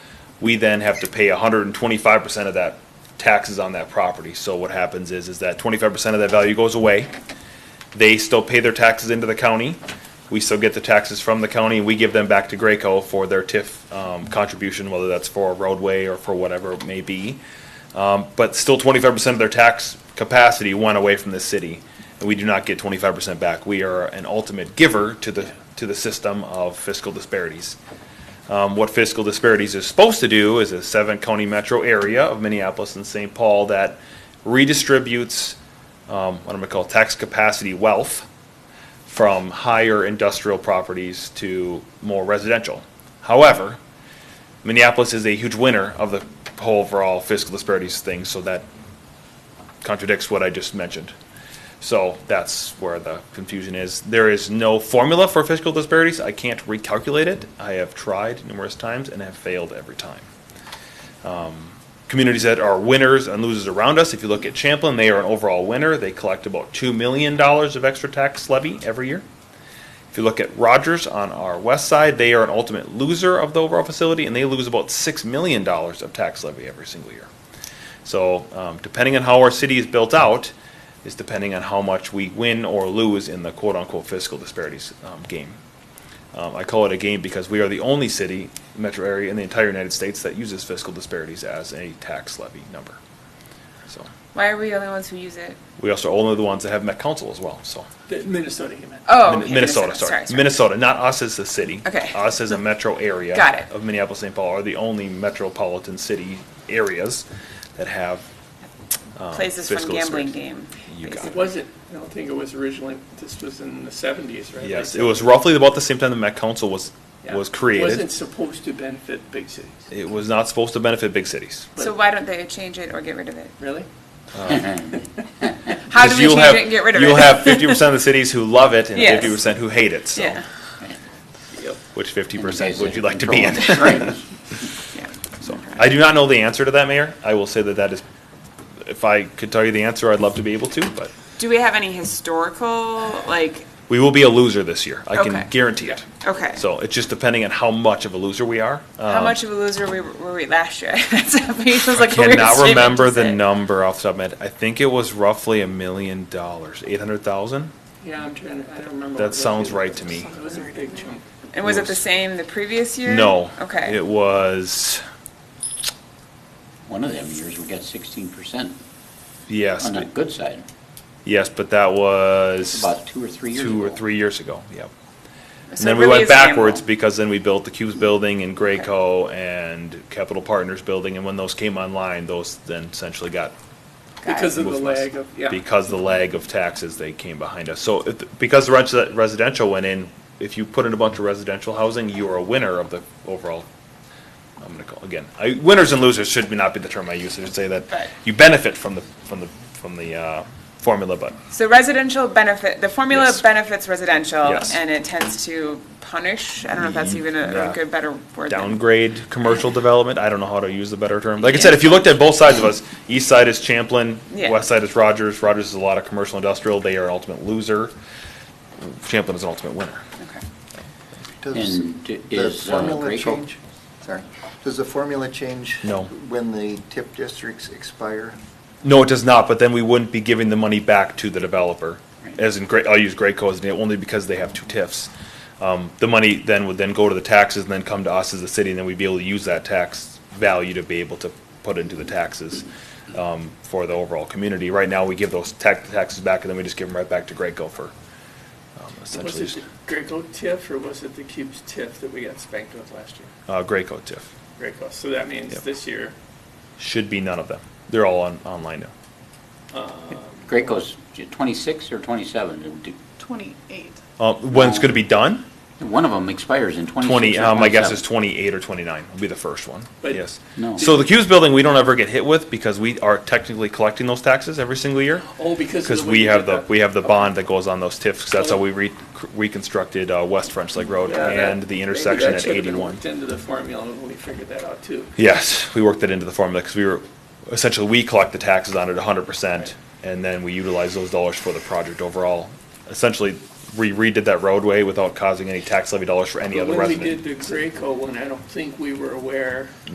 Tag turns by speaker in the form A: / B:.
A: we then have to pay hundred and twenty-five percent of that taxes on that property. So what happens is, is that twenty-five percent of that value goes away. They still pay their taxes into the county. We still get the taxes from the county. We give them back to Graco for their TIF um, contribution, whether that's for a roadway or for whatever it may be. Um, But still twenty-five percent of their tax capacity went away from the city. And we do not get twenty-five percent back. We are an ultimate giver to the, to the system of fiscal disparities. Um, what fiscal disparities is supposed to do is a seven county metro area of Minneapolis and St. Paul that redistributes, um, what I'm gonna call tax capacity wealth from higher industrial properties to more residential. However, Minneapolis is a huge winner of the whole overall fiscal disparities thing, so that contradicts what I just mentioned. So that's where the confusion is. There is no formula for fiscal disparities. I can't recalculate it. I have tried numerous times and have failed every time. Um, Communities that are winners and losers around us, if you look at Champlin, they are an overall winner. They collect about $2 million of extra tax levy every year. If you look at Rogers on our west side, they are an ultimate loser of the overall facility, and they lose about $6 million of tax levy every single year. So um, depending on how our city is built out is depending on how much we win or lose in the quote-unquote fiscal disparities um, game. Um, I call it a game because we are the only city, metro area in the entire United States that uses fiscal disparities as a tax levy number. So
B: Why are we the only ones who use it?
A: we also are only the ones that have Met Council as well. So
C: The Minnesota you meant.
B: Oh,
A: Min-
B: okay,
A: Minnesota, sorry, Minnesota, not us as the city.
B: Okay.
A: Us as a metro area.
B: Got it.
A: Of Minneapolis-St. Paul are the only metropolitan city areas that have. um,
B: Places from
A: fiscal
B: gambling
A: disparities.
B: game.
A: You got
B: basically.
C: It wasn't, I don't think it was originally, this was in the seventies, right?
A: Yes,
C: Like,
A: it was roughly about the same time the Met Council was,
C: yeah.
A: was
C: Wasn't
A: created.
C: supposed to benefit big cities,
A: It was not supposed to benefit big cities.
B: So why don't they change it or get rid of it?
C: really?
D: Uh,
B: How do
A: Because
B: we
A: you'll
B: change
A: have-
B: it and get rid of it?
A: You'll have fifty percent of the cities who love it and
B: Yes.
A: fifty percent who hate it, so,
B: Yeah,
C: Yep.
A: which fifty percent would you like to be in?
B: yeah.
A: So, I do not know the answer to that, Mayor. I will say that that is, if I could tell you the answer, I'd love to be able to, but
B: Do we have any historical, like,
A: we will be a loser this year. I
B: Okay.
A: can guarantee it.
B: okay.
A: So it's just depending on how much of a loser we are.
B: How
A: Um,
B: much of a loser we- were we last year? That's a- it was like a weird
A: cannot
B: statement
A: remember
B: to
A: the
B: say.
A: number off the top of my head. I think it was roughly a million dollars, eight hundred thousand.
C: Yeah, I'm trying to, I don't remember.
A: That
C: what it
A: sounds
C: was.
A: right to me.
C: It was a big chunk.
B: And was it the same the previous year?
A: No.
B: Okay.
A: It was,
D: One of them years, we got sixteen percent
A: yes,
D: on the good side,
A: yes, but that was
D: about two or three years ago.
A: two or three years ago, yep. And
B: So it
A: then we
B: really
A: went
B: is gamble.
A: backwards because then we built the Cubes Building and Graco and Capital Partners Building, and when those came online, those then essentially got
B: Got it.
C: Because of the
A: moved west.
C: lag of, yeah.
A: Because the lag of taxes, they came behind us. So if, because the res- residential went in, if you put in a bunch of residential housing, you are a winner of the overall. I'm gonna call, again, I, winners and losers should be- not be the term I use. I should say
B: Right.
A: that you benefit from the, from the, from the, uh, formula, but
B: So residential benefit, the formula
A: Yes.
B: benefits residential,
A: Yes. Mm-hmm.
B: and it tends to punish. I don't know if that's even a,
A: Yeah.
B: a good, better word. than-
A: downgrade commercial development. I don't know how to use the better term. Like I said, if you looked at both sides of us, east side is Champlin,
B: Yeah.
A: west side is Rogers. Rogers is a lot of commercial industrial. They are an ultimate loser. Champlin is an ultimate winner.
B: Okay.
E: Does
D: And d-
E: the
D: is uh,
E: formula
D: Graco,
E: change? Sorry, does the formula change?
A: No.
E: When the TIP districts expire?
A: No, it does not, but then we wouldn't be giving the money back to the developer. As in, Gray- I'll use Graco as an example, only because they have two TIFs. Um, The money then would then go to the taxes and then come to us as a city, and then we'd be able to use that tax value to be able to put into the taxes um, for the overall community. Right now, we give those tax, taxes back, and then we just give them right back to Graco for um,
C: Was
A: essentially,
C: it the Graco TIF or was it the Cubes TIF that we got spanked with last year?
A: uh, Graco TIF.
C: Graco, so that means
A: Yep.
C: this year,
A: Should be none of them. They're all on, online now.
D: Graco's twenty-six or twenty-seven, D-
F: 28.
A: Uh, When it's gonna be done?
D: one of them expires in twenty-six
A: 20,
D: or twenty-seven.
A: um, my guess is 28 or 29 will be the first one,
C: But-
A: yes.
D: No.
A: So the Cubes building, we don't ever get hit with because we are technically collecting those taxes every single year.
C: oh, because. of
A: Because
C: the way
A: we
C: you
A: have
C: did
A: the,
C: that.
A: we have the bond that goes on those TIFs, 'cause that's how
C: Oh.
A: we re- reconstructed, uh, West French Lake Road
C: Yeah, that-
A: and the
C: maybe
A: intersection
C: that
A: at
C: should have been
A: 81.
C: worked Into the formula when we figured that out too.
A: Yes, we worked that into the formula because we were, essentially, we collect the taxes on it 100%, and then we utilize those dollars for the project overall. Essentially, we redid that roadway without causing any tax levy dollars for any
C: But
A: other
C: When we
A: resident.
C: did the Graco one, I don't think we were aware